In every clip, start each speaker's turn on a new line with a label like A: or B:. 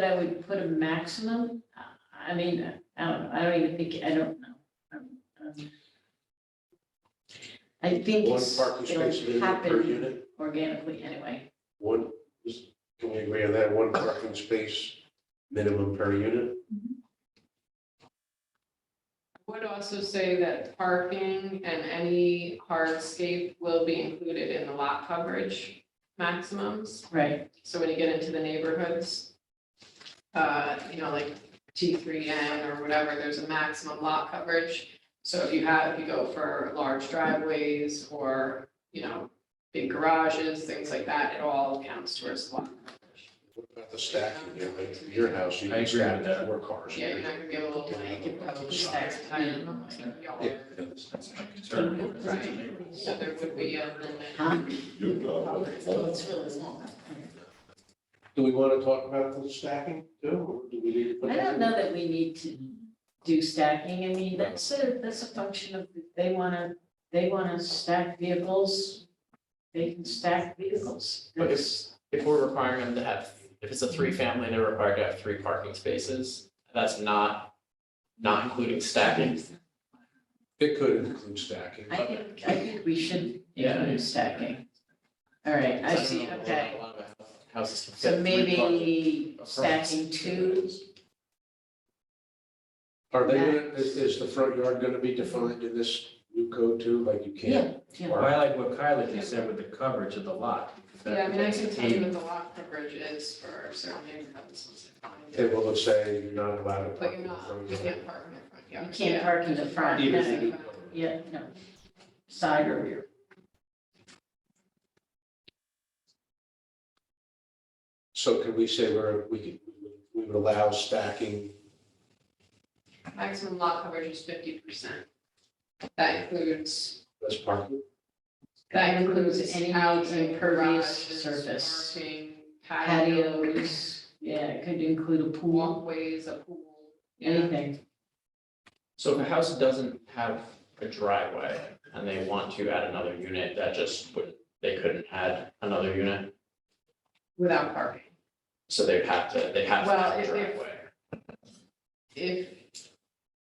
A: that I would put a maximum, I- I mean, I don't, I don't even think, I don't know. Um, um, I think
B: One
A: it's-
B: parking space
A: it'll
B: minimum per
A: happen
B: unit,
A: organically anyway.
B: one, is- can we agree on that, one parking space minimum per unit?
C: Would also say that parking and any hardscape will be included in the lot coverage maximums.
A: Right,
C: So when you get into the neighborhoods, uh, you know, like T three N or whatever, there's a maximum lot coverage. So if you have, if you go for large driveways or, you know, big garages, things like that, it all counts towards lot coverage.
B: What about the stacking, you know, like your house, you can stack four cars.
C: Yeah, you're not gonna be able to like.
A: could probably
C: stack
A: stack
C: tire
A: it.
C: on the yard.
B: Yeah.
C: Right, so there would be a limit.
A: huh?
D: So it's really
A: small.
B: uh, Do we want to talk about the stacking too, or do we need to? put
A: I
B: that
A: don't
B: in?
A: know that we need to do stacking, I mean, that's a, that's a function of, if they wanna, they wanna stack vehicles, they can stack vehicles.
D: But
A: That's-
D: if, if we're requiring them to have, if it's a three family, they're required to have three parking spaces, that's not, not including stacking.
B: It could include stacking.
A: I think, I think we should
D: Yeah.
A: include stacking. All right, I see,
D: don't know,
A: okay.
D: a lot of Houses can fit
A: So
D: three parking
A: maybe
D: apartments.
A: stacking two,
B: Are they, gonna- is, is the front yard going to be defined in this new code too, like you can't?
A: Yeah, yeah.
E: Well,
B: park?
E: I like what Kyla just said with the coverage of the lot. because that-
C: Yeah, I mean, I
E: that's
C: can
E: the
C: tell you
E: key.
C: what the lot coverage is for certain neighborhoods.
B: It will say you're not allowed to
C: But
B: park
C: you're
B: in the
C: not,
B: front
C: you
B: yard.
C: can't park in the front
A: you
C: yard.
A: can't park in the front,
B: Even
A: no.
B: if you do.
A: yeah, no. Side or rear.
B: So can we say we're, we could, we would allow stacking?
C: Maximum lot coverage is fifty percent. That includes,
B: as parking?
C: that includes
A: Any
C: any housing,
A: impervious
C: garages,
A: surface.
C: parking, patio,
A: Patios, yeah, it could include a pool,
C: walkways, a pool. yeah.
A: anything.
D: So if a house doesn't have a driveway and they want to add another unit, that just would, they couldn't add another unit.
C: Without parking.
D: So they'd have to, they'd have to
C: Well,
D: have a
C: if- if-
D: driveway.
C: If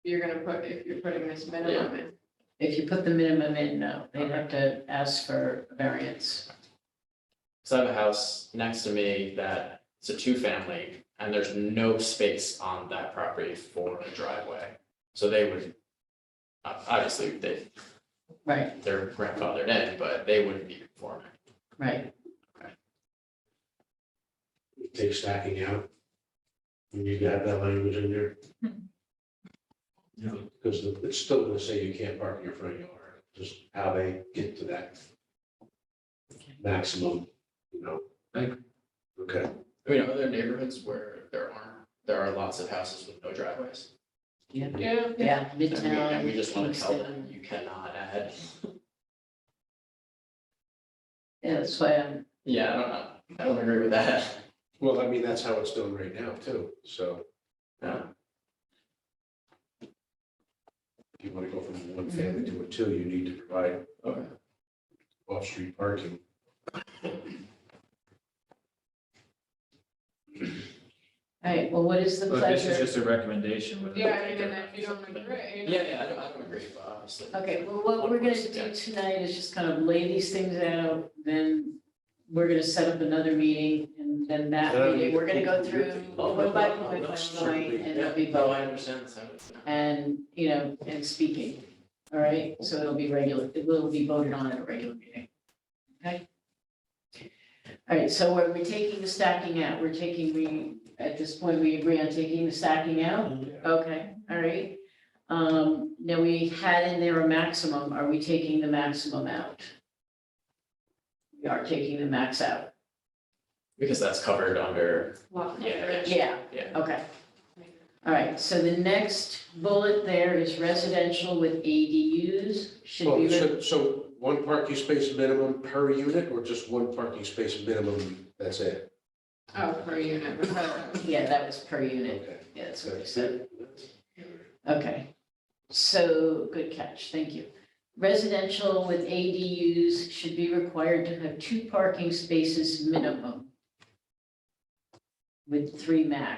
C: you're gonna put, if you're putting this minimum in,
A: If you put the minimum in, no, they'd have to ask for variance.
D: So I have a house next to me that it's a two family and there's no space on that property for a driveway. So they would, ob- obviously, they,
A: Right,
D: they're grandfathered in, but they wouldn't be conforming.
A: right.
B: Take stacking out? We need to have that language in there. Because the- it's still gonna say you can't park in your front yard, just how they get to that maximum, you know?
E: Thank
B: Okay,
D: I mean, are there neighborhoods where there aren't, there are lots of houses with no driveways?
C: yeah,
A: Yeah,
D: And we-
A: Midtown,
D: And we just want to tell them,
A: Kingston.
D: you cannot add,
A: Yeah, that's why I'm
D: yeah, I don't know, I don't agree with that.
B: well, I mean, that's how it's done right now too, so.
D: Yeah.
B: If you wanna go from one family to a two, you need to provide
D: Okay.
B: off-street parking.
A: All right, well, what is the
E: But this is
A: pleasure?
E: just a recommendation with.
C: yeah, and then if you don't agree.
D: Yeah, yeah, I don't, I don't agree, but obviously.
A: Okay, well, what we're gonna do tonight is just kind of lay these things out, then we're gonna set up another meeting, and then that meeting, we're gonna go through one by point, by point, and it'll be
D: Yeah, no, I
A: voting,
D: understand, so.
A: and, you know, and speaking, all right? So it'll be regular, it will be voted on at a regular meeting, okay? All right, so are we taking the stacking out? We're taking, we, at this point, we agree on taking the stacking out? Okay, all right. Um, now we had in there a maximum. Are we taking the maximum out? We are taking the max out.
D: Because that's covered under,
C: Lot
D: Yeah.
C: coverage.
A: Yeah,
D: yeah.
A: okay. All right, so the next bullet there is residential with ADUs. Should
B: Well,
A: we, re-
B: so, so one parking space minimum per unit or just one parking space minimum, that's it?
C: Oh, per unit, whatever.
A: yeah, that was per unit.
B: Okay.
A: Yeah, that's what we
B: That's
A: said.
B: it.
A: Okay, so, good catch, thank you. Residential with ADUs should be required to have two parking spaces minimum. With three max.